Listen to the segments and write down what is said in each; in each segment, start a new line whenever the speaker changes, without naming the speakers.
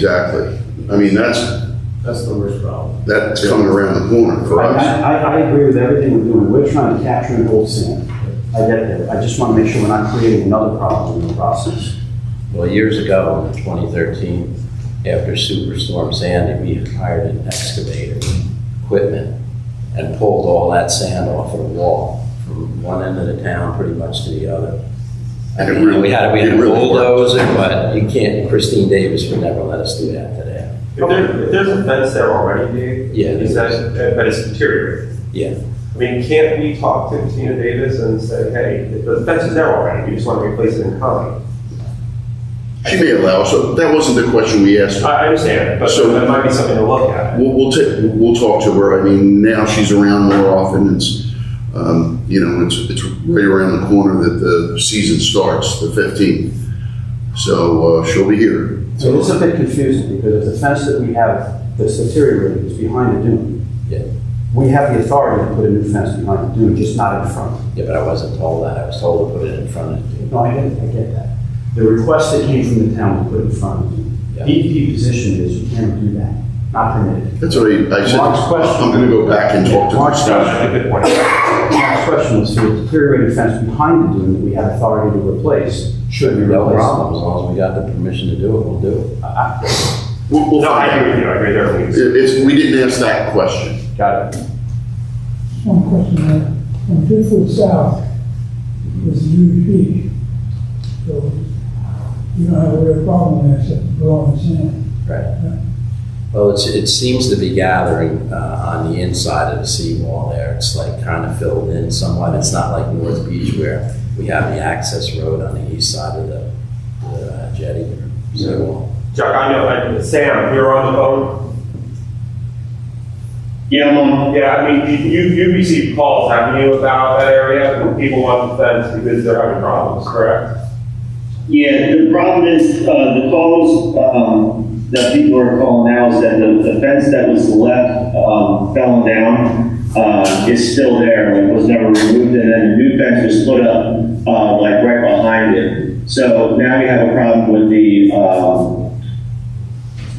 Exactly. I mean, that's,
That's the worst problem.
that's coming around the corner for
I,
us.
I, I agree with everything we're doing, we're trying to capture and hold sand. I get that, I just want to make sure we're not creating another problem in the process.
Well, years ago, in 2013, after Superstorm Sandy, we hired an excavator, with equipment, and pulled all that sand off of the wall from one end of the town pretty much to the other.
And
And
it
you know,
really-
we had, we had
it
a
really worked.
bulldozer, but you can't, Christine Davis would never let us do that today.
If there, if there's a fence there already, Dave,
Yeah.
is that, but it's deteriorating.
Yeah.
I mean, can't we talk to Tina Davis and say, hey, the fence is there already, we just want to replace it in kind?
She may allow, us. so that wasn't the question we asked.
I, I understand, but
So-
that might be something to look at.
We'll, we'll ta- we'll talk to her. I mean, now she's around more often. It's, um, you know, it's, it's right around the corner that the season starts, the fifteenth. So, uh, she'll be here.
So it's a bit confusing, because if the fence that we have that's deteriorating is behind the dune.
Yeah.
We have the authority to put a new fence behind the dune, just not in front.
Yeah, but I wasn't told that, I was told to put it in front of you.
No, I get, it, I get that. The request that came from the town to put in front of you.
Yeah.
DEP E position is you can't do that, not permitted.
That's what I, I said.
Mark's question.
I'm gonna go back and talk to
Mark's
her.
question.
That's a good point.
My question is, the deteriorating fence behind the dune that we have authority to replace should be
No
replaced.
problem, as long as we got the permission to do it, we'll do it.
We'll, we'll
No, I
find out.
agree with you, I agree there, please.
It- It's, we didn't ask that question.
Got it.
One question there, from Pittsburgh South, was a huge beach. So you don't have a real problem there except for blowing sand.
Right. Well, it's, it seems to be gathering uh, on the inside of the seawall there. It's like kind of filled in somewhat. It's not like North Beach where we have the access road on the east side of the, the uh, jetty or seawall.
Chuck, I know, I, Sam, you're on the phone?
Yeah, um, I'm on.
Yeah, I mean, you, you received calls, haven't you, about that area, when people want the fence because they're having problems, correct?
Yeah, the problem is, uh, the calls, um, that people are calling now is that the, the fence that was left, um, fell down, uh, is still there, like, was never removed, and then the new fence was put up, uh, like, right behind it. So now we have a problem with the, um,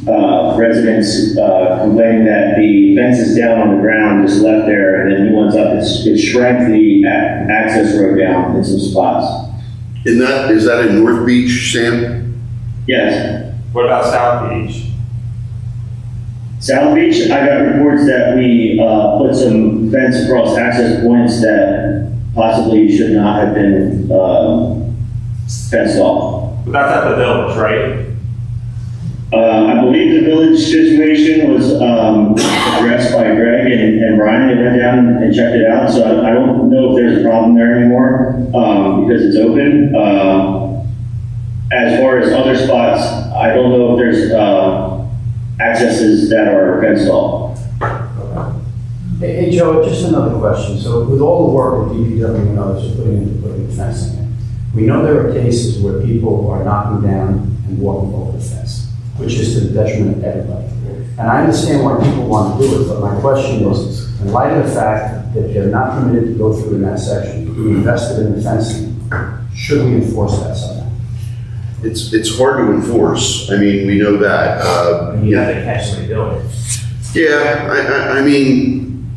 uh, residents, uh, complaining that the fence is down on the ground, just left there, and the new one's up, it's, it shrank the a- access road down in some spots.
In that, is that in North Beach, Sam?
Yes.
What about South Beach?
South Beach, I got reports that we, uh, put some fence across access points that possibly should not have been, uh, fenced off.
But that's at the village, right?
Uh, I believe the village situation was, um, addressed by Greg and, and Ryan, they went down and checked it out, so I- I don't know if there's a problem there anymore, um, because it's open, um, as far as other spots, I don't know if there's, uh, accesses that are fenced off.
Hey, hey, Joe, just another question. So with all the work that DPW and others are putting into putting the fence in, we know there are cases where people are knocking down and walking over the fence, which is to the detriment of everybody. And I understand why people want to do it, but my question is, in light of the fact that they're not permitted to go through in that section, we invested in the fencing, should we enforce that somehow?
It's, it's hard to enforce. I mean, we know that. Uh, you know,
to actually do it.
Yeah, I, I, I mean,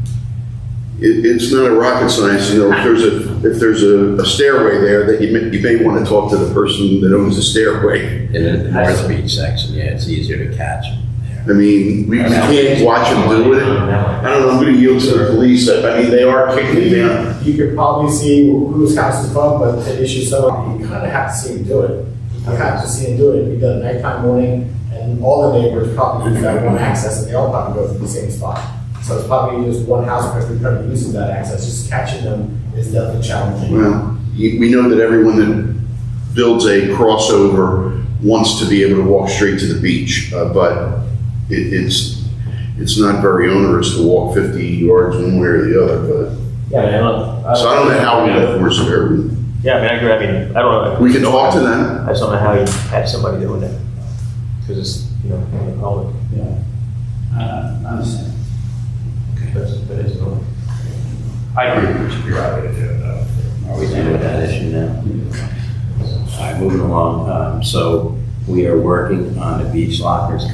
it, it's not a rocket science, you know, if there's a, if there's a, a stairway there, that you may, you may want to talk to the person that owns the stairway.
In the North Beach section, yeah, it's easier to catch them there.
I mean, we we can't watch them do it. I don't know, I'm gonna yield to the police, I I mean, they are kicking me down.
You could probably see whose house is above, but the issue is, so you kind of have to see him do it. You have to see him do it, it'd be done nighttime, morning, and all the neighbors probably use that one access, and they all probably go through the same spot. So it's probably just one house, but we're probably using that access, just catching them is definitely challenging.
Well, you- we know that everyone that builds a crossover wants to be able to walk straight to the beach, uh, but it, it's, it's not very onerous to walk fifty yards one way or the other, but
Yeah, I mean, I don't, I
So I don't know how we
yeah.
enforce it.
Yeah, I mean, I agree. I mean, I don't know.
We can talk to them.
I just don't know how you have somebody doing that because it's you know in the public.
Yeah. Uh, I understand.
That's, that is the only-
I agree, we should figure out a way to do it though.
Are we done with that issue now? All right, moving along. Um, So we are working on the beach lockers